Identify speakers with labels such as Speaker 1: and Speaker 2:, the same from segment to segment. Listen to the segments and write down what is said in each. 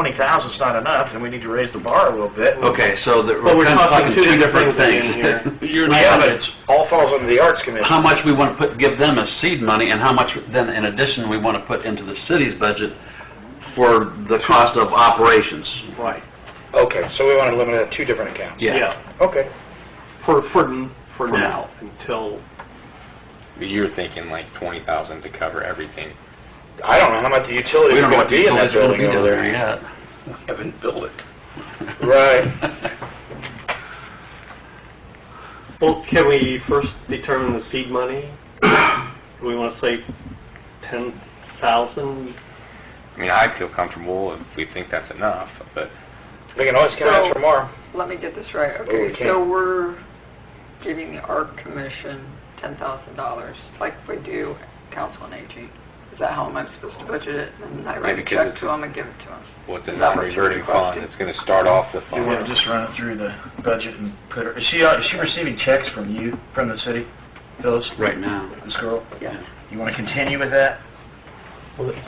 Speaker 1: twenty thousand's not enough, and we need to raise the bar a little bit.
Speaker 2: Okay, so that
Speaker 3: But
Speaker 2: we're
Speaker 3: we're
Speaker 2: kind of
Speaker 3: talking two
Speaker 2: different
Speaker 3: different
Speaker 2: things.
Speaker 3: things here.
Speaker 2: You're
Speaker 1: Yeah,
Speaker 2: not-
Speaker 1: but it's, all falls under the Arts Commission.
Speaker 2: How much we want to put, give them as seed money, and how much then in addition we want to put into the city's budget for the cost of operations.
Speaker 3: Right.
Speaker 1: Okay, so we want to limit it to two different accounts?
Speaker 2: Yeah.
Speaker 1: Okay.
Speaker 3: For, for, for
Speaker 2: now.
Speaker 3: now, until,
Speaker 4: You're thinking like twenty thousand to cover everything.
Speaker 1: I don't know how much the utilities
Speaker 2: We
Speaker 1: are
Speaker 2: don't know
Speaker 1: going
Speaker 2: what
Speaker 1: to
Speaker 2: the
Speaker 1: be in that
Speaker 2: utilities are going
Speaker 1: building over
Speaker 2: to be down there
Speaker 1: there.
Speaker 2: yet.
Speaker 3: haven't built it.
Speaker 1: Right.
Speaker 3: Well, can we first determine the seed money? Do we want to say ten thousand?
Speaker 4: I mean, I feel comfortable if we think that's enough, but
Speaker 1: We can always count
Speaker 5: So-
Speaker 1: for more.
Speaker 5: Let me get this right.
Speaker 1: Oh, we
Speaker 5: Okay,
Speaker 1: can't.
Speaker 5: so we're giving the art commission ten thousand dollars, like we do council and aging. Is that how am I supposed to budget it? And I write
Speaker 4: Yeah,
Speaker 5: a
Speaker 4: because
Speaker 5: check
Speaker 4: it's-
Speaker 5: to them and give it to them?
Speaker 4: what's a
Speaker 5: Is that what you're
Speaker 4: non-reverting fund?
Speaker 5: requesting?
Speaker 4: It's gonna start off the
Speaker 6: You want to
Speaker 4: fund.
Speaker 6: just run it through the budget and put her, is she, uh, is she receiving checks from you, from the city, Phyllis?
Speaker 2: Right now.
Speaker 6: This girl?
Speaker 5: Yeah.
Speaker 6: You want to continue with that?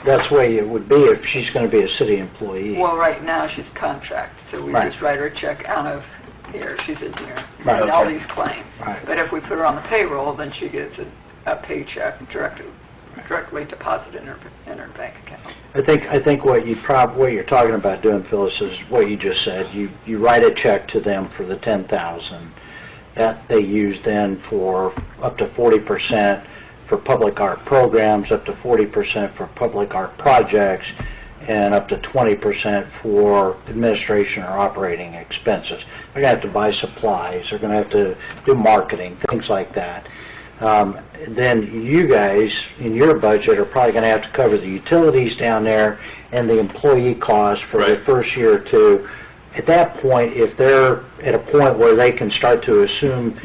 Speaker 7: That's the way it would be if she's going to be a city employee.
Speaker 5: Well, right now, she's contract, so we
Speaker 7: Right.
Speaker 5: just write her a check out of here, she's in here,
Speaker 7: Right,
Speaker 5: and all
Speaker 7: okay.
Speaker 5: these claims.
Speaker 7: Right.
Speaker 5: But if we put her on the payroll, then she gets a a paycheck directly, directly deposited in her, in her bank account.
Speaker 7: I think, I think what you prob, what you're talking about doing, Phyllis, is what you just said. You, you write a check to them for the ten thousand that they use then for up to forty percent for public art programs, up to forty percent for public art projects, and up to twenty percent for administration or operating expenses. They're gonna have to buy supplies, they're gonna have to do marketing, things like that. um, then you guys, in your budget, are probably going to have to cover the utilities down there and the employee costs for the
Speaker 2: Right.
Speaker 7: first year or two. At that point, if they're at a point where they can start to assume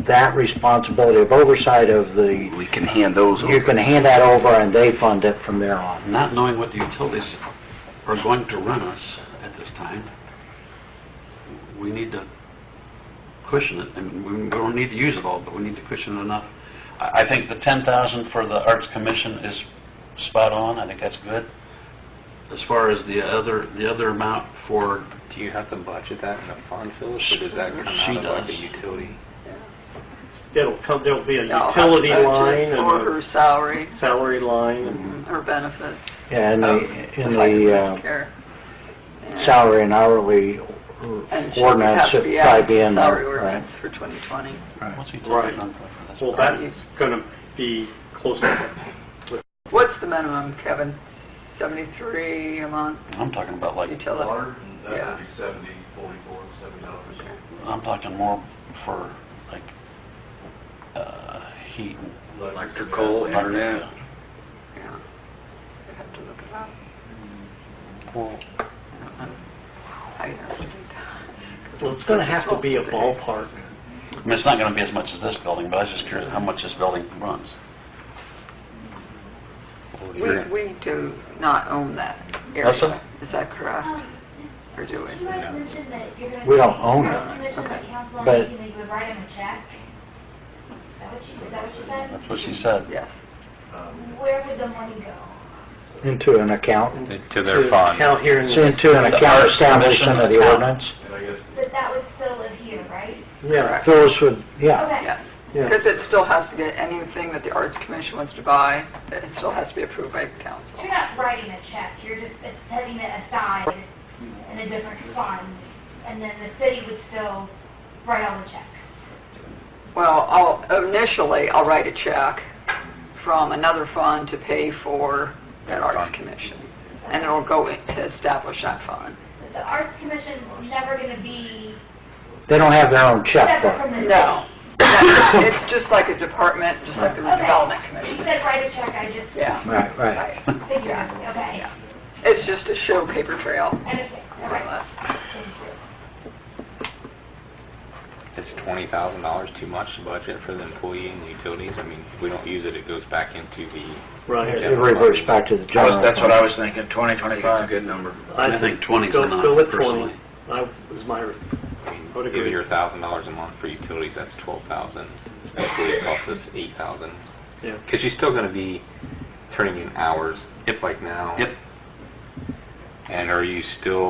Speaker 7: that responsibility of oversight of the,
Speaker 2: We can hand those
Speaker 7: you can hand that over and they fund it from there on.
Speaker 2: Not knowing what the utilities are going to run us at this time, we need to cushion it, and we we don't need to use it all, but we need to cushion it enough. I, I think the ten thousand for the Arts Commission is spot on, I think that's good. As far as the other, the other amount for,
Speaker 4: Do you have to budget that in a fund, Phyllis, or does that come
Speaker 2: She
Speaker 4: out of like a
Speaker 2: does.
Speaker 4: utility?
Speaker 3: It'll come, there'll be a
Speaker 5: I'll have
Speaker 3: utility
Speaker 5: budget
Speaker 3: line and
Speaker 5: For
Speaker 3: a
Speaker 5: her salary, Mm-hmm,
Speaker 3: salary line and
Speaker 5: her benefits.
Speaker 7: Yeah, and
Speaker 5: um,
Speaker 7: the, in
Speaker 5: life
Speaker 7: the uh,
Speaker 5: care.
Speaker 7: salary and hourly
Speaker 5: And she would
Speaker 7: ordinance,
Speaker 5: have to
Speaker 7: it'd
Speaker 5: be
Speaker 7: probably
Speaker 5: out
Speaker 7: be in
Speaker 5: of salary
Speaker 7: there, right?
Speaker 5: ordinance for 2020.
Speaker 2: what's the
Speaker 3: Right.
Speaker 2: utility number? for this?
Speaker 3: Well, that's going to be close to,
Speaker 5: What's the minimum, Kevin? 73 a month
Speaker 2: I'm talking about like,
Speaker 5: utility? Yeah.
Speaker 3: seventy, forty-four, seventy dollars.
Speaker 2: I'm talking more for like, uh, heat.
Speaker 3: Electrical,
Speaker 2: internet.
Speaker 5: Yeah. I'd have to look it up.
Speaker 2: Well,
Speaker 5: I have to do that.
Speaker 3: Well, it's going to have to be a ballpark.
Speaker 2: I mean, it's not going to be as much as this building, but I was just curious how much this building runs.
Speaker 5: We, we do not own that
Speaker 2: Russell?
Speaker 5: area. Is that correct? Or do we?
Speaker 7: We don't
Speaker 8: Oh,
Speaker 7: own it. but-
Speaker 8: You would write him a check? Is that what you, is that what you said?
Speaker 2: That's what she said.
Speaker 5: Yes.
Speaker 3: Um,
Speaker 8: Where would the money go?
Speaker 7: Into an account,
Speaker 4: To their fund.
Speaker 3: Count here in
Speaker 7: it's
Speaker 5: Mm.
Speaker 3: the...
Speaker 7: into an account established under the
Speaker 2: Commission
Speaker 7: ordinance.
Speaker 8: But that would still live here, right?
Speaker 3: Yeah.
Speaker 7: Phyllis would, yeah.
Speaker 8: Okay.
Speaker 5: Yes.
Speaker 3: Yeah.
Speaker 5: Because it still has to get, anything that the Arts Commission wants to buy, it still has to be approved by council.
Speaker 8: You're not writing a check, you're just setting it aside in a different fund, and then the city would still write all the checks.
Speaker 5: Well, I'll, initially, I'll write a check from another fund to pay for that arts commission, and it'll go in to establish that fund.
Speaker 8: But The Arts Commission is never going to be
Speaker 7: They don't have their own
Speaker 8: separate
Speaker 7: checkbook.
Speaker 8: from the city.
Speaker 5: No. It's just like a department, just like the redevelopment
Speaker 8: Okay, you
Speaker 5: commission.
Speaker 8: said write a check, I just
Speaker 5: Yeah.
Speaker 7: Right, right.
Speaker 8: figured, okay.
Speaker 5: It's just a show paper trail,
Speaker 8: I understand, all
Speaker 5: more or
Speaker 8: right,
Speaker 5: less.
Speaker 8: thank you.
Speaker 4: Is twenty thousand dollars too much to budget for the employee and the utilities? I mean, if we don't use it, it goes back into the,
Speaker 3: Right.
Speaker 7: It reverts back to the
Speaker 6: I was-
Speaker 7: general.
Speaker 6: That's what
Speaker 7: fund.
Speaker 6: I was thinking, twenty, twenty-five.
Speaker 4: good number.
Speaker 2: I think 20 is
Speaker 3: Go-
Speaker 2: enough,
Speaker 3: Go with
Speaker 2: personally.
Speaker 3: 20. That was my,
Speaker 4: I mean,
Speaker 3: Would agree.
Speaker 4: Give your thousand dollars a month for utilities, that's twelve thousand. Employee costs us eight thousand.
Speaker 3: Yeah.
Speaker 4: Because you're still gonna be turning in hours, if like now.
Speaker 2: Yep.
Speaker 4: And are you still